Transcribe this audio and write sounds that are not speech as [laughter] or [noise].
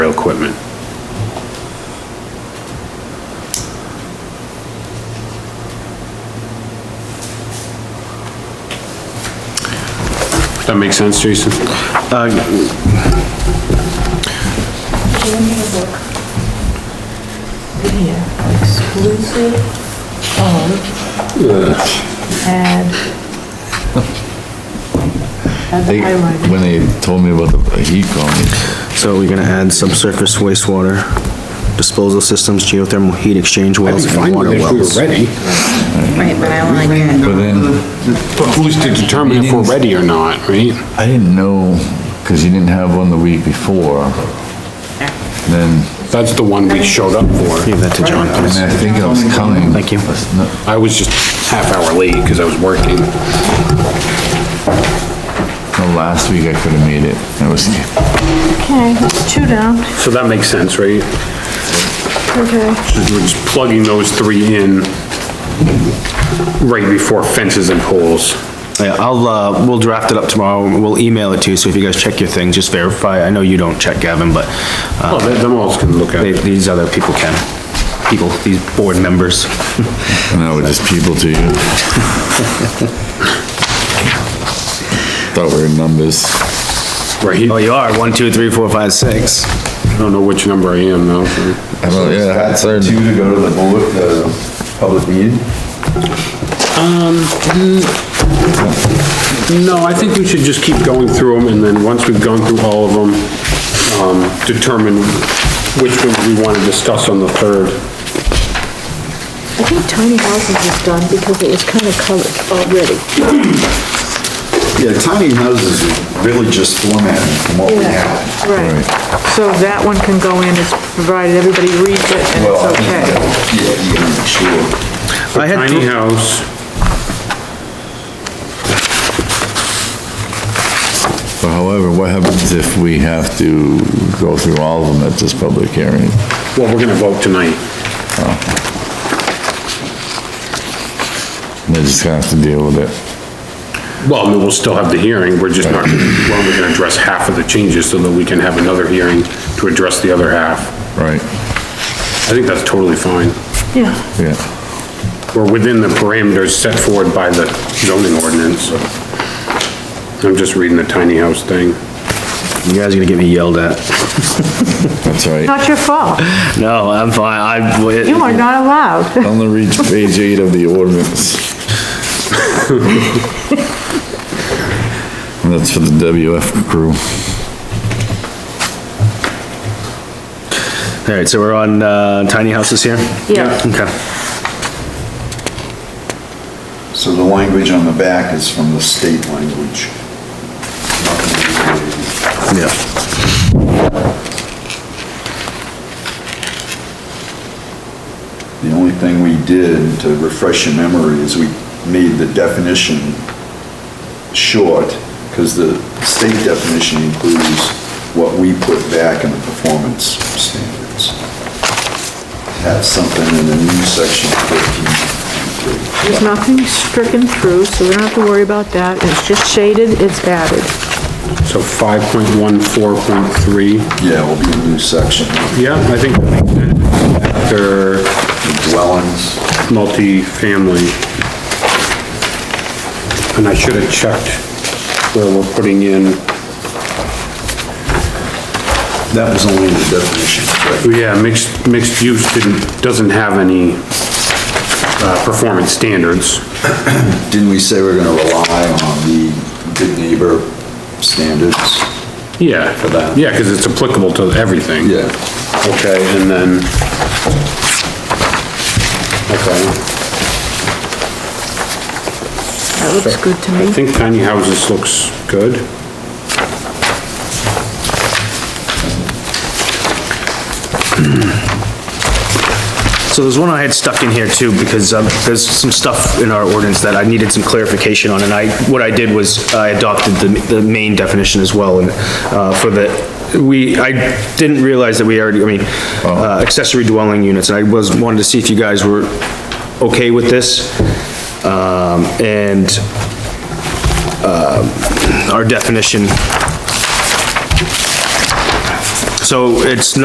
audio equipment. That make sense, Jason? Uh, Here, exclusive of, add. Add the They, highlighted. when they told me about the heat cone, So we're gonna add subsurface wastewater disposal systems, geothermal heat exchange wells, and water wells. ready. Right, but I like that. but then, But who's to determine if we're ready or not, right? I didn't know, cause you didn't have one the week before. Then, That's the one we showed up for. Give that to John, and please. I think I was coming. Thank you. That's not- I was just half hour late because I was working. No, last week I could've made it, I was, Okay, that's two down, So that makes sense, right? okay. We're just plugging those three in right before fences and poles. Yeah, I'll, uh, we'll draft it up tomorrow, we'll email it to you, so if you guys check your things, just verify, I know you don't check Gavin, but, Oh, uh, they- them all can look at they- it. these other people can. People, these board members. and I was just people to you. Thought we were numbers. Right, Oh, I you are, one, two, three, four, five, six. don't know which number I am now. so- I don't, yeah, that's our. Two to go to the bullet, the public meeting? No, I think we should just keep going through them, and then once we've gone through all of them, um, determine which ones we want to discuss on the third. I think tiny houses is done because it was kind of colored already. Yeah, tiny houses is really just formatting from what we have. Right, so that one can go in, it's provided everybody reads it and Well, I it's think okay. that- Yeah, you gotta make sure. I had Tiny house, But However, what happens if we have to go through all of them at this public hearing? well, we're gonna vote tonight. They're just gonna have to deal with it. Well, I mean, we'll still have the hearing, we're just not, we're only gonna address half of the changes so that we can have another hearing to address the other half. Right, I think that's totally fine. Yeah, yeah. We're within the parameters set forward by the zoning ordinance. I'm just reading the tiny house thing. You guys are gonna get me yelled at. That's [laughs] right. not your fault, No, I'm fine, I. you are not allowed. On the reach page eight of the ordinance. And That's for the WF crew. All right, so we're on, uh, tiny houses here? Yeah. Okay. So the language on the back is from the state language. Yeah. The only thing we did to refresh your memory is we made the definition short, because the state definition includes what we put back in the performance standards. Have something in the new section 14. There's nothing stricken through, so we don't have to worry about that, it's just shaded, it's added. So 5.14.3, Yeah, will be a new section, yeah, I think that makes sense. after dwellings. multifamily. And I should have checked where we're putting in, That was only the definition, correct? yeah, mixed, mixed use didn't, doesn't have any, uh, performance standards. Didn't we say we're gonna rely on the good neighbor standards? Yeah, for that. that. Yeah, because it's applicable to everything. Yeah. Okay, and then... Okay, That looks good to I me. think tiny houses looks good. So there's one I had stuck in here too, because um, there's some stuff in our ordinance that I needed some clarification on, and I, what I did was I adopted the, the main definition as well, and, uh, for the, we, I didn't realize that we already, I mean, uh, accessory dwelling units, and I was, wanted to see if you guys were okay with this. Um, and, um, our definition. So it's